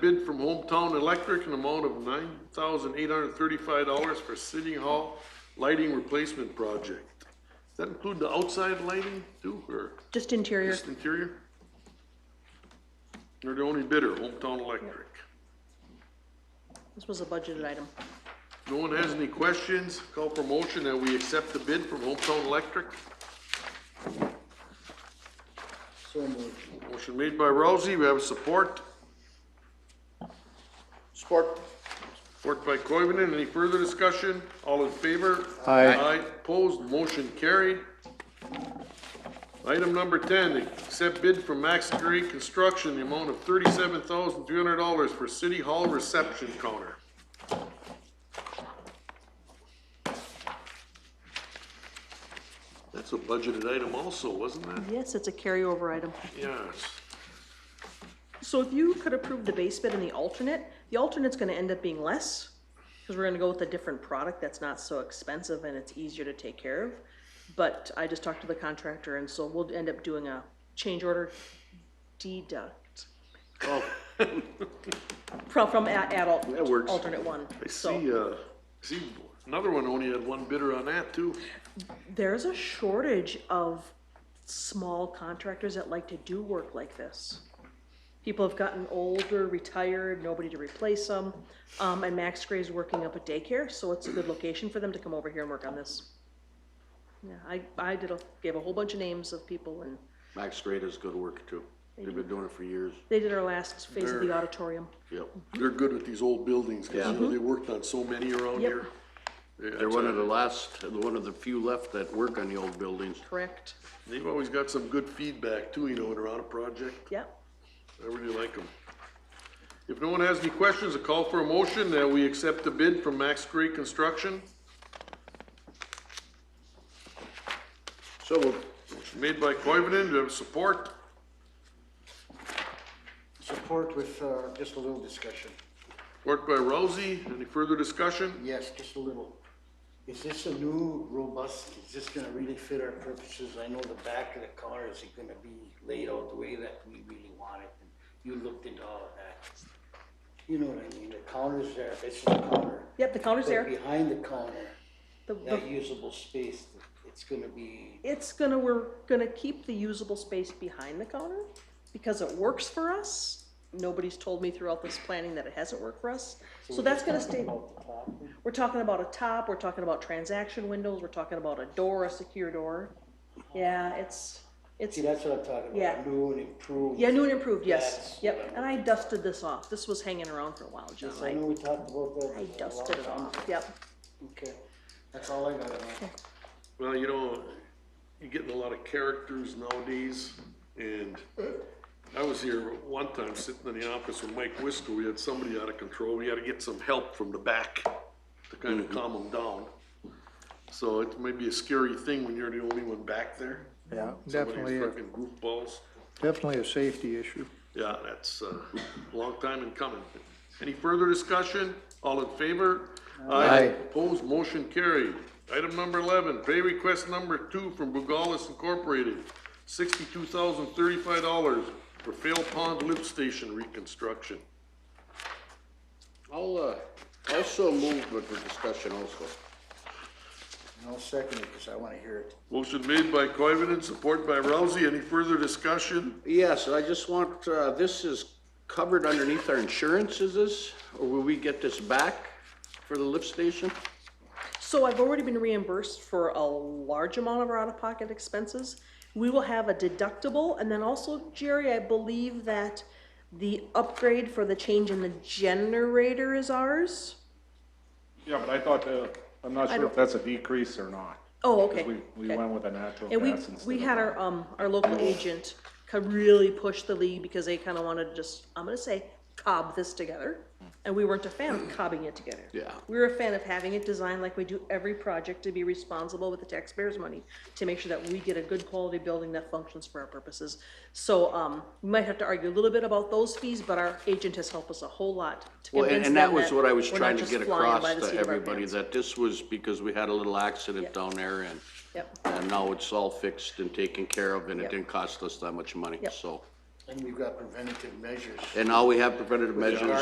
Bid from Hometown Electric an amount of nine thousand eight hundred thirty-five dollars for City Hall lighting replacement project. Does that include the outside lighting too, or Just interior. just interior? They're the only bidder, Hometown Electric. This was a budgeted item. No one has any questions? Call for motion that we accept the bid from Hometown Electric. So moved. Motion made by Rousey, we have support. Support. Support by Coivinon, any further discussion? All in favor? Aye. Aye, opposed, motion carried. Item number ten, accept bid from Max Gray Construction, the amount of thirty-seven thousand three hundred dollars for City Hall reception counter. That's a budgeted item also, wasn't that? Yes, it's a carryover item. Yes. So if you could approve the base bid and the alternate, the alternate's gonna end up being less, because we're gonna go with a different product that's not so expensive and it's easier to take care of. But I just talked to the contractor, and so we'll end up doing a change order deduct Oh, from, from a- adult, That works. alternate one. I see, So uh, see, another one only had one bidder on that too. there's a shortage of small contractors that like to do work like this. People have gotten older, retired, nobody to replace them. Um, and Max Gray's working up a daycare, so it's a good location for them to come over here and work on this. Yeah, I, I did a, gave a whole bunch of names of people and Max Gray does good work too. They've been doing it for years. they did our last phase of the auditorium. Yep. They're good with these old buildings, cause you know, Yeah. they worked on so many around Yep. here. Yeah, They're one of the last, one of the few left that work on the old buildings. Correct. They've always got some good feedback too, you know, when they're on a project, Yep. I really like them. If no one has any questions, a call for a motion that we accept the bid from Max Gray Construction. So moved. Motion made by Coivinon, do you have support? Support with, uh, just a little discussion. Support by Rousey, any further discussion? Yes, just a little. Is this a new robust, is this gonna really fit our purposes? I know the back of the car is it gonna be laid out the way that we really want it? And You looked into all of that. You know what I mean? The counter's there, this is the counter. Yep, the counter's But there. behind the counter, The- the- that usable space, it's gonna be, it's gonna, we're gonna keep the usable space behind the counter because it works for us. Nobody's told me throughout this planning that it hasn't worked for us. So that's gonna stay, out the top. we're talking about a top, we're talking about transaction windows, we're talking about a door, a secure door. Yeah, it's, it's, See, that's what I'm talking about. Yeah. New and improved. yeah, new and improved, yes, That's- yep. And I dusted this off. This was hanging around for a while, John. Yes, I I, know we talked about that. I a dusted lot. it off, yep. Okay, that's all I got on that. Well, you know, you're getting a lot of characters nowadays, and I was here one time sitting in the office with Mike Wisco, we had somebody out of control, we had to get some help from the back to kind of calm them down. So it may be a scary thing when you're the only one back there. Yeah, Somebody's definitely, a- Freaking goofballs. definitely a safety issue. Yeah, that's uh, a long time in coming. Any further discussion? All in favor? Aye. Opposed, motion carried. Item number eleven, pay request number two from Bugalis Incorporated, sixty-two thousand thirty-five dollars for Fail Pond Lift Station reconstruction. I'll, uh, also move, but for discussion also. And I'll second it, because I want to hear it. Motion made by Coivinon, support by Rousey. Any further discussion? Yes, I just want, uh, this is covered underneath our insurance, is this? Or will we get this back for the lift station? So I've already been reimbursed for a large amount of our out-of-pocket expenses. We will have a deductible, and then also, Jerry, I believe that the upgrade for the change in the generator is ours? Yeah, but I thought, uh, I'm not sure don't- if that's a decrease or not. Oh, 'cause okay. We, we okay. went with a natural And we, gas instead we of had a- our, um, our local agent co- really push the league because they kinda wanted to just, I'm gonna say, cob this together. And we weren't a fan of cobbing it together. Yeah. We were a fan of having it designed like we do every project to be responsible with the taxpayers' money, to make sure that we get a good quality building that functions for our purposes. So, um, we might have to argue a little bit about those fees, but our agent has helped us a whole lot to Well, and, convince them and that was what I was we're not trying to just get flying across by the to seat of our everybody, pants. that this was because we had a little accident down there and, Yep. and now it's all fixed and taken care of and it Yep. didn't cost us that much money, Yep. so. And we've got preventative measures. And now we have preventative measures.